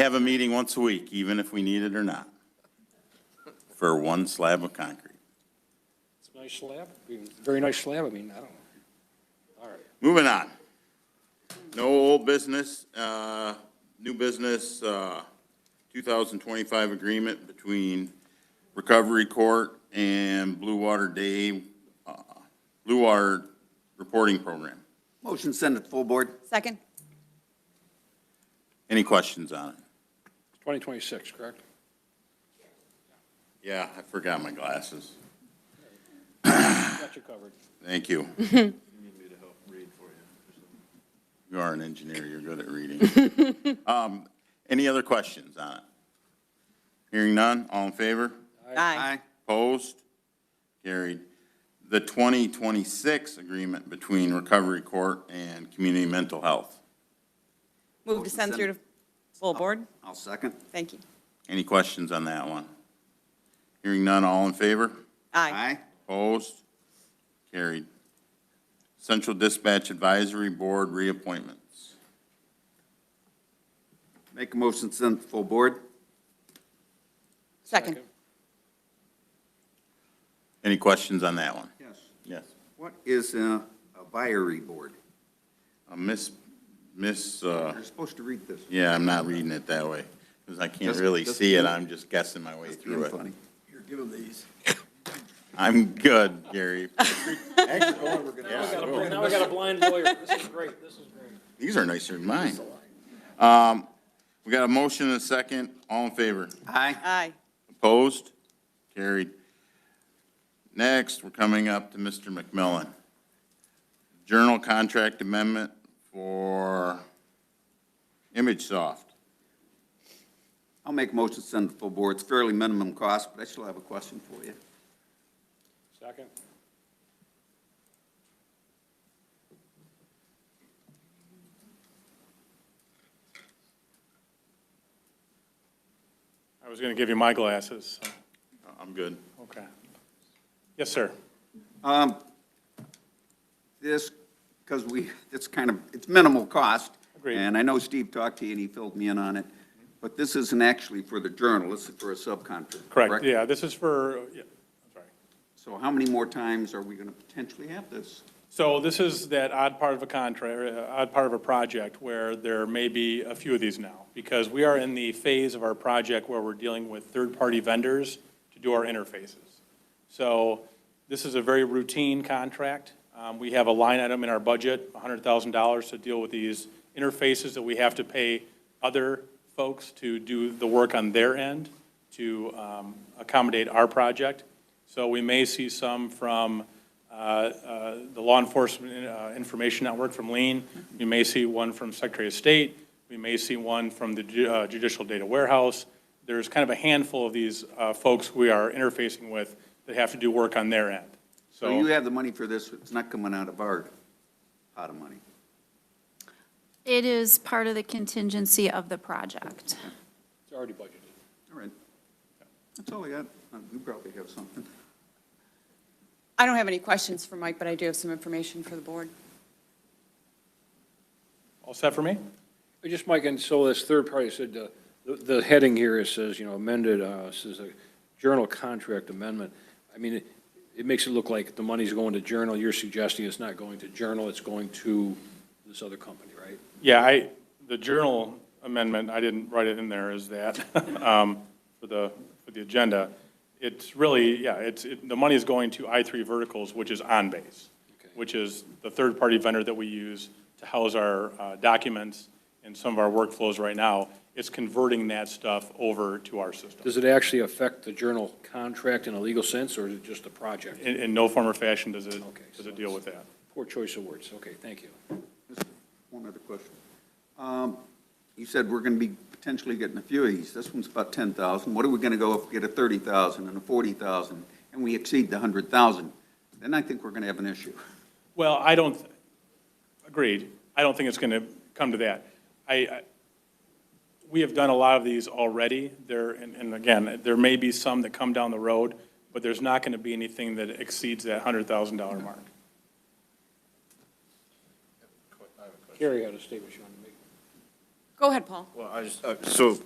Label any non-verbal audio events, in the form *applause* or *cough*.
have a meeting once a week, even if we need it or not, for one slab of concrete. It's a nice slab, I mean, very nice slab, I mean, I don't know. Moving on. No old business, uh, new business, uh, 2025 agreement between Recovery Court and Blue Water Day, uh, Blue Water Reporting Program. Motion send it to full board. Second? Any questions on it? 2026, correct? Yeah, I forgot my glasses. Got you covered. Thank *laughs* you. You are an engineer, you're good at reading. *laughs* Um, Any other questions on it? Hearing none, all in favor? Aye. Opposed? Carried. The 2026 agreement between Recovery Court and Community Mental Health. Move to send Oh. through to full board? I'll second. Thank you. Any questions on that one? Hearing none, all in favor? Aye. Opposed? Carried. Central Dispatch Advisory Board reappointments. Make a motion send it to full board. Second? Any questions on that one? Yes. Yes. What is a a viary board? Uh, Miss, Miss, uh, You're supposed to read this. yeah, I'm not reading it that way, because I can't Just- really just- see it, I'm just guessing my way It's through it. funny. Here, give him these. I'm good, Gary. *laughs* Yeah, Now we got a blind lawyer, this is great, this is great. These are nicer than mine. Um, We got a motion and a second, all in favor? Aye. Aye. Opposed? Carried. Next, we're coming up to Mr. McMillan. Journal contract amendment for ImageSoft. I'll make a motion send it to full board. It's fairly minimum cost, but I still have a question for you. Second? I was going to give you my glasses, so, I'm good. okay. Yes, sir. Um, This, because we, it's kind of, it's minimal cost. Agreed. And I know Steve talked to you and he filled me in on it, but this isn't actually for the journal, this is for a subcontractor. Correct, yeah, this is for, yeah, I'm sorry. So how many more times are we going to potentially have this? So this is that odd part of a contract, odd part of a project where there may be a few of these now, because we are in the phase of our project where we're dealing with third-party vendors to do our interfaces. So this is a very routine contract. Um, We have a line item in our budget, $100,000, to deal with these interfaces that we have to pay other folks to do the work on their end to um, accommodate our project. So we may see some from uh, uh, the Law Enforcement uh, Information Network from Lean. We may see one from Secretary of State. We may see one from the ju- uh, Judicial Data Warehouse. There's kind of a handful of these uh, folks we are interfacing with that have to do work on their end. So you have the money for this, it's not coming out of our pot of money. It is part of the contingency of the project. It's already budgeted. All right. That's all I got. Uh, You probably have something. I don't have any questions for Mike, but I do have some information for the board. All set for me? Uh, Just Mike, and so this third party said, uh, the, the heading here, it says, you know, amended, uh, says a journal contract amendment. I mean, it, it makes it look like the money's going to journal. You're suggesting it's not going to journal, it's going to this other company, right? Yeah, I, the journal amendment, I didn't write it in there, is that, *laughs* um, for the, for the agenda. It's really, yeah, it's, it- the money is going to I3 Verticals, which is OnBase, which is the third-party vendor that we use to house our uh, documents and some of our workflows right now. It's converting that stuff over to our system. Does it actually affect the journal contract in a legal sense, or is it just the project? In, in no form or fashion does it, Okay, does so it deal with that. Poor choice of words. Okay, thank you. Just One other question. Um, You said we're going to be potentially getting a few of these. This one's about 10,000. What are we going to go if we get a 30,000 and a 40,000, and we exceed the 100,000? Then I think we're going to have an issue. Well, I don't, agreed. I don't think it's going to come to that. I, I- we have done a lot of these already. There, and and again, there may be some that come down the road, but there's not going to be anything that exceeds that $100,000 mark. Carrie had a statement she wanted to make. Go ahead, Paul. Well, I just, uh, so